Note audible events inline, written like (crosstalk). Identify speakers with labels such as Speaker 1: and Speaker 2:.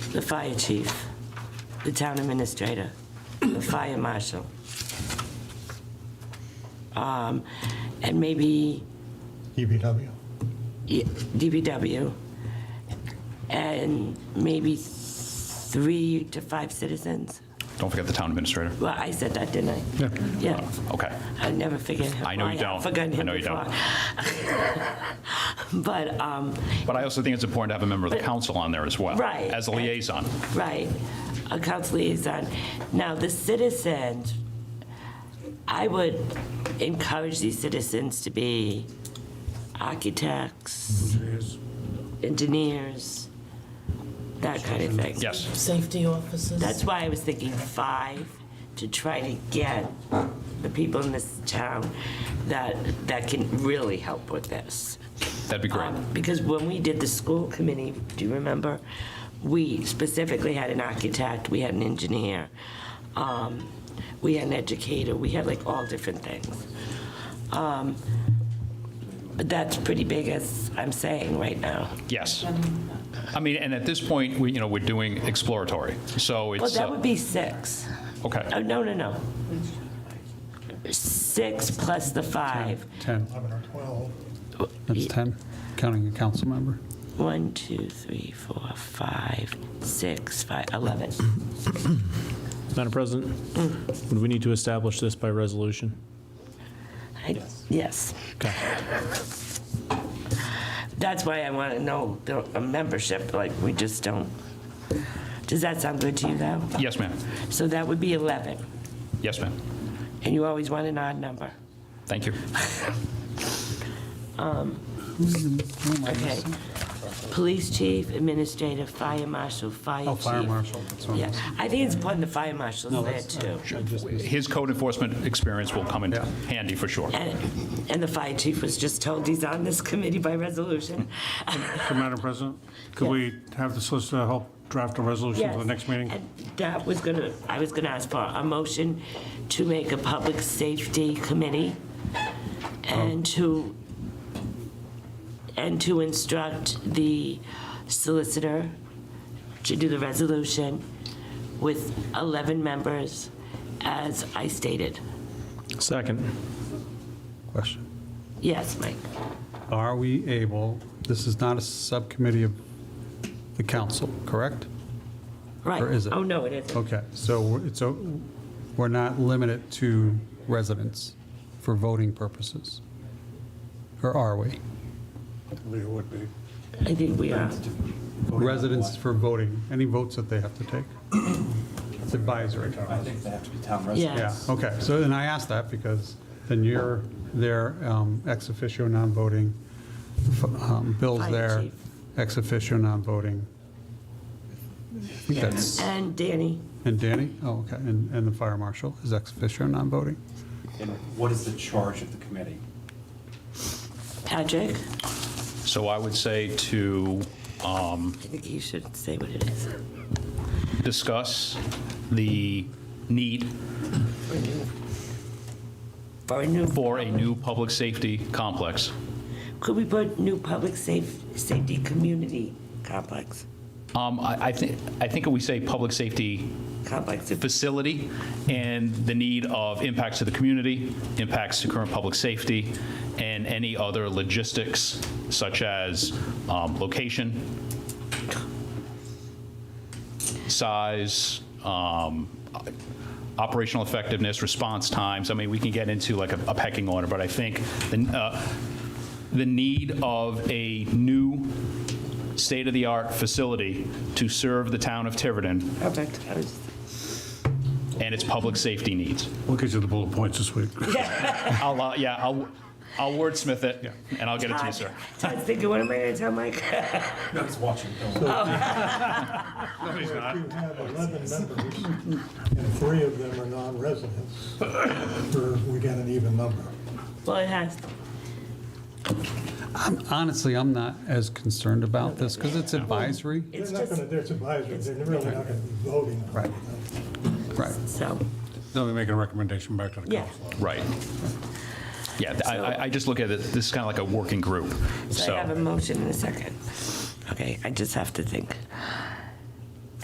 Speaker 1: the fire chief, the town administrator, the fire marshal. Um, And maybe
Speaker 2: DPW.
Speaker 1: y- DPW, and maybe three to five citizens.
Speaker 3: Don't forget the town administrator.
Speaker 1: Well, I said that, didn't I?
Speaker 2: Yeah.
Speaker 1: Yeah.
Speaker 3: Okay.
Speaker 1: I never forget him.
Speaker 3: I know you
Speaker 1: have
Speaker 3: don't.
Speaker 1: forgotten
Speaker 3: I
Speaker 1: him
Speaker 3: know you don't.
Speaker 1: before. (laughs) But, um,
Speaker 3: But I also think it's important to have a member of the council on there as well.
Speaker 1: Right.
Speaker 3: As a liaison.
Speaker 1: right, a council liaison. Now, the citizens, I would encourage these citizens to be architects, engineers, that kind of thing.
Speaker 3: Yes.
Speaker 4: Safety officers.
Speaker 1: That's why I was thinking five, to try to get the people in this town that, that can really help with this.
Speaker 3: That'd be great.
Speaker 1: Um, Because when we did the school committee, do you remember? We specifically had an architect, we had an engineer, um, we had an educator, we had like all different things. Um, But that's pretty big as I'm saying right now.
Speaker 3: Yes.
Speaker 1: uh,
Speaker 3: I mean, and at this point, we, you know, we're doing exploratory. So it's.
Speaker 1: Well, that
Speaker 3: uh,
Speaker 1: would be six. Oh,
Speaker 3: Okay.
Speaker 1: no, no, no. Six plus the five.
Speaker 5: 10.
Speaker 2: 11 or 12.
Speaker 5: That's 10, counting a council member.
Speaker 1: One, two, three, four, five, six, five, 11.
Speaker 6: Madam President, would we need to establish this by resolution?
Speaker 1: I- Yes.
Speaker 6: Okay.
Speaker 1: That's why I want to know the a membership, like, we just don't. Does that sound good to you, though?
Speaker 3: Yes, ma'am.
Speaker 1: So that would be 11,
Speaker 3: Yes, ma'am.
Speaker 1: and you always want an odd number.
Speaker 3: Thank you.
Speaker 1: Okay. Police chief, administrator, fire marshal, fire chief.
Speaker 5: Oh, fire marshal, that's what I'm
Speaker 1: Yeah, I think it's important the fire marshal's there,
Speaker 5: that's- uh,
Speaker 1: too.
Speaker 3: His code enforcement experience will come in
Speaker 5: Yeah.
Speaker 3: handy for sure.
Speaker 1: And and the fire chief was just told he's on this committee by resolution.
Speaker 7: Madam President, could we have the solicitor help draft a resolution for the
Speaker 1: Yes.
Speaker 7: next meeting?
Speaker 1: And That was gonna, I was gonna ask for a motion to make a public safety committee and
Speaker 5: Oh.
Speaker 1: to, and to instruct the solicitor to do the resolution with 11 members, as I stated.
Speaker 6: Second.
Speaker 5: Question.
Speaker 1: Yes, Mike?
Speaker 5: Are we able, this is not a subcommittee of the council, correct?
Speaker 1: Right.
Speaker 5: Or is it?
Speaker 1: Oh, no, it isn't.
Speaker 5: Okay, so it's, a- we're not limited to residents for voting purposes? Or are we?
Speaker 2: It would be.
Speaker 1: I think we are.
Speaker 5: Residents for voting, any votes that they have to take? It's advisory.
Speaker 8: think they have to be town
Speaker 5: Yeah,
Speaker 1: Yes.
Speaker 5: okay, so, and I asked that because then you're there, um, ex officio non-voting, f- um, Bill's
Speaker 1: Fire
Speaker 5: there,
Speaker 1: chief.
Speaker 5: ex officio non-voting. I think that's,
Speaker 1: And Danny?
Speaker 5: and Danny, oh, okay, and, and the fire marshal is ex officio non-voting?
Speaker 8: And what is the charge of the committee?
Speaker 1: Patrick?
Speaker 3: So I would say to um,
Speaker 1: I think you should say what it is.
Speaker 3: discuss the need
Speaker 1: For a new.
Speaker 3: for a new public safety complex
Speaker 1: Could we put new public safe, safety community complex?
Speaker 3: Um, I, I think, I think we say public safety
Speaker 1: Complex, if-
Speaker 3: facility and the need of impacts to the community, impacts to current public safety, and any other logistics such as um, location, size, um, operational effectiveness, response times. I mean, we can get into like a a pecking order, but I think the, uh, the need of a new state-of-the-art facility to serve the town of Tiverton
Speaker 1: perfect. I was-
Speaker 3: and its public safety needs.
Speaker 7: We'll get you the bullet points this week.
Speaker 3: I'll, uh, yeah, I'll, I'll wordsmith it, and I'll get it to you, sir.
Speaker 1: Todd's thinking, what am (laughs) I gonna tell Mike?
Speaker 8: Nobody's watching. Don't worry.
Speaker 2: If you have 11 members and three of them are non-residents, we're- we get an even number.
Speaker 1: Well, it has,
Speaker 5: I'm, honestly, I'm not as concerned about this, because it's advisory.
Speaker 2: They're
Speaker 1: it's
Speaker 2: not
Speaker 1: just,
Speaker 2: going to, they're advisory, they're really not going to be voting on
Speaker 5: Right.
Speaker 2: it.
Speaker 5: Right.
Speaker 1: so,
Speaker 7: (laughs) Then we make a recommendation back to the
Speaker 1: Yeah.
Speaker 7: council.
Speaker 3: Right. Yeah, th- I, I- I just look at it, this is kind of like a working group,
Speaker 1: so I have a
Speaker 3: so.
Speaker 1: motion in a second. Okay, I just have to think.